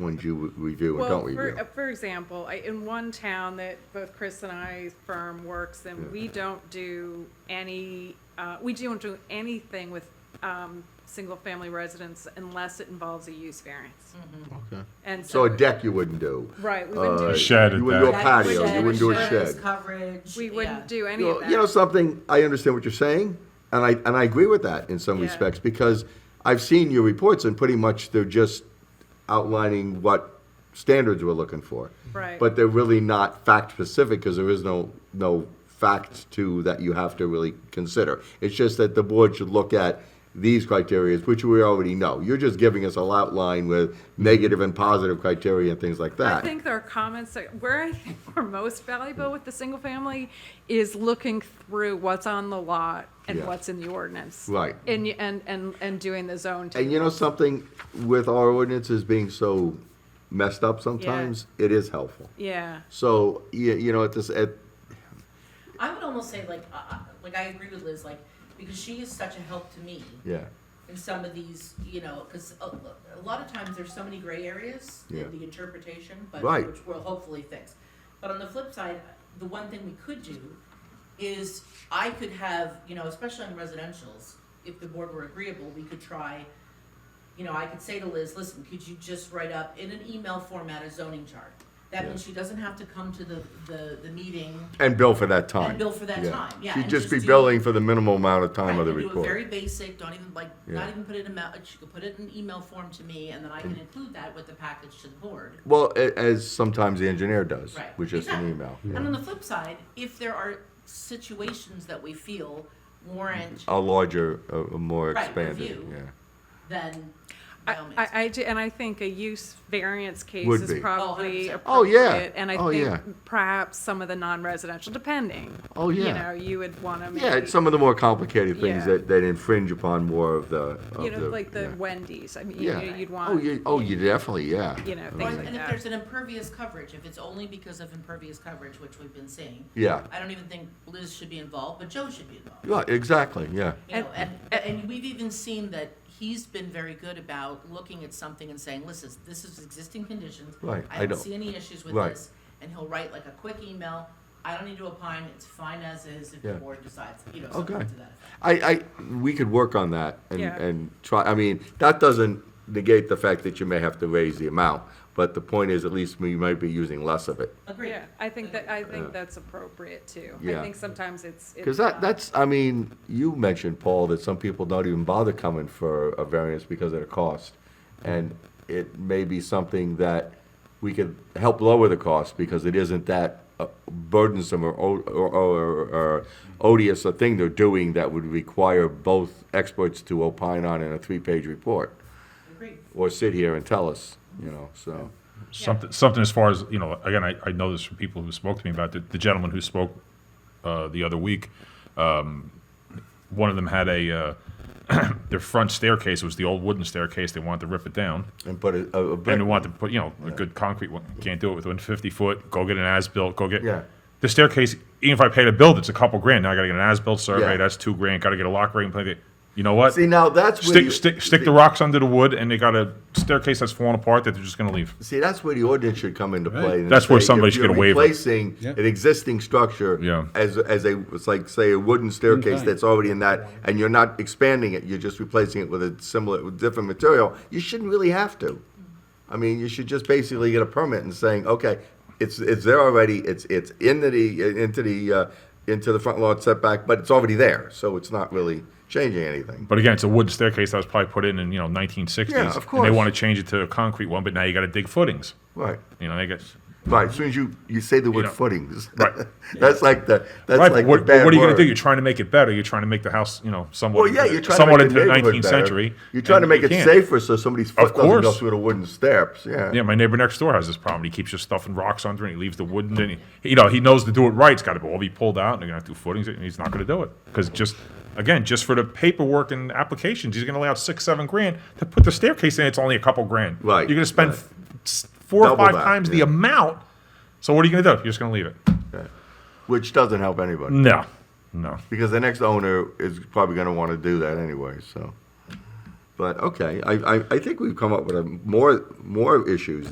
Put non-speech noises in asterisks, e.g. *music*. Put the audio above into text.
ones you re- review and Well, don't for, review. uh, for example, I, in one town that both Chris and I's firm works in, we don't do any, uh, we don't do anything with, um, single-family residents unless it involves a use variance. Okay. And So so, a deck you wouldn't do. right, we wouldn't Uh, do, Shed You at wouldn't do a that. patio, you Shed, wouldn't do a insurance shed. Coverage. we yeah. wouldn't do any You of know, that. you know something, I understand what you're saying, and I, and I agree with that in some Yeah. respects, because I've seen your reports and pretty much they're just outlining what standards we're looking for. Right. But they're really not fact specific, because there is no, no fact to, that you have to really consider. It's just that the board should look at these criteria, which we already know. You're just giving us a outline with negative and positive criteria and things like that. I think there are comments that, where I *laughs* think we're most valuable with the single family is looking through what's on the lot and Yeah. what's in the ordinance. Right. And, y- and, and, and doing the zone. And you know something, with our ordinances being so messed up sometimes, it is helpful. Yeah, So, you, you know, at this, at, I would almost say like, uh, uh, like I agree with Liz, like, because she is such a help to me yeah, in some of these, you know, because a, a lot of times there's so many gray areas Yeah. in the interpretation, but Right. which we'll hopefully fix. But on the flip side, the one thing we could do is I could have, you know, especially on residential's, if the board were agreeable, we could try, you know, I could say to Liz, listen, could you just write up in an email format a zoning chart? That means she doesn't have to come to the, the, the meeting and bill for that time. And bill for that time, yeah, She'd and just just be do- billing for the minimal amount of time of Right, the and Do it very report. basic, don't even like, Yeah. not even put it in, ma- you could put it in email form to me and then I can include that with the package to the board. Well, a, as sometimes the engineer does, Right. which is an exactly. email. And on the flip side, if there are situations that we feel warrant, A larger, a, a more Right, expanded, review. yeah. then by I, all means. I, I do- and I think a use variance case Would is be. Oh, probably 100%. appropriate. Oh, yeah. And I Oh, yeah. think perhaps some of the non-residential, depending. Oh, You yeah. know, you would want to maybe. Yeah, it's some of the more complicated things Yeah. that, that infringe upon more of the, You of know, like the yeah. Wendy's, I mean, you Yeah. know, you'd Oh, want, you, oh, you definitely, yeah. you know, Or- things like And if that. there's an impervious coverage, if it's only because of impervious coverage, which we've been seeing, Yeah, I don't even think Liz should be involved, but Joe should be involved. yeah, exactly, yeah. You know, and, and we've even seen that he's been very good about looking at something and saying, listen, this is existing conditions. Right, I I don't don't- see any issues with right. this. And he'll write like a quick email, I don't need to opine, it's fine as is if the Yeah. board decides, you know, something Okay. to that. effect. I, I, we could work on that and, Yeah. and try, I mean, that doesn't negate the fact that you may have to raise the amount, but the point is, at least we might be using less of it. Agreed. Yeah, I think that, I think that's appropriate too. I Yeah. think sometimes it's. Because it's that, not- that's, I mean, you mentioned, Paul, that some people don't even bother coming for a variance because of the cost. And it may be something that we could help lower the cost because it isn't that uh, burdensome or, o- or, or, or odious a thing they're doing that would require both experts to opine on in a three-page report. Agreed. or sit here and tell us, you know, so. Something, something as far as, you know, again, I, I know this from people who spoke to me about it. The gentleman who spoke uh, the other week, um, one of them had a, uh, *clears throat* their front staircase was the old wooden staircase. They wanted to rip it down. And put a, a And they brick, wanted to put, you know, a good concrete one. Can't do it with one 50 foot. Go get an as built. Go get. Yeah. The staircase, even if I pay to build, it's a couple grand. Now I got to get an as built survey. Yeah. That's two grand. Got to get a lock ring. You know what? see, now that's where. stick, stick, stick the rocks under the wood, and they got a staircase that's falling apart that they're just gonna leave. See, that's where the ordinance should come into play. and That's where say, somebody if should get you're a waiver. Replacing an existing structure. Yeah. As, as a, it's like, say, a wooden staircase that's already in that, and you're not expanding it, you're just replacing it with a similar, with different material, you shouldn't really have to. I mean, you should just basically get a permit and saying, okay, it's, it's there already, it's, it's in the, into the, uh, into the front lawn setback, but it's already there, so it's not really changing anything. But again, it's a wooden staircase that was probably put in in you know 1960s. Yeah, of And course. they want to change it to a concrete one, but now you got to dig footings. Right. You know, they got Right, as soon as you, you say the word know, footings, right. *laughs* that's like the that's right. like but what, the bad what are you gonna do? word. You're trying to make it better. You're trying to make the house you know somewhat Well, yeah, you're trying somewhat to make into the the neighborhood 19th better. century. You're trying to and make you it can't. safer so somebody's foot Of doesn't go course. through the wooden steps. Yeah. Yeah, my neighbor next door has this problem. He keeps just stuffing rocks under, and he leaves the wood, and then he, you know, he knows to do it right. It's got to all be pulled out, and they're gonna have to do footings, and he's not gonna do it because just again, just for the paperwork and applications, he's gonna lay out six, seven grand to put the staircase in. It's only a couple grand. Right, You're gonna spend right. f s four Double or five that, times the yeah. amount. So what are you gonna do? You're just gonna leave it? Which doesn't help anybody No, no. because the next owner is probably going to want to do that anyway. So, but okay, I, I, I think we've come up with a more more issues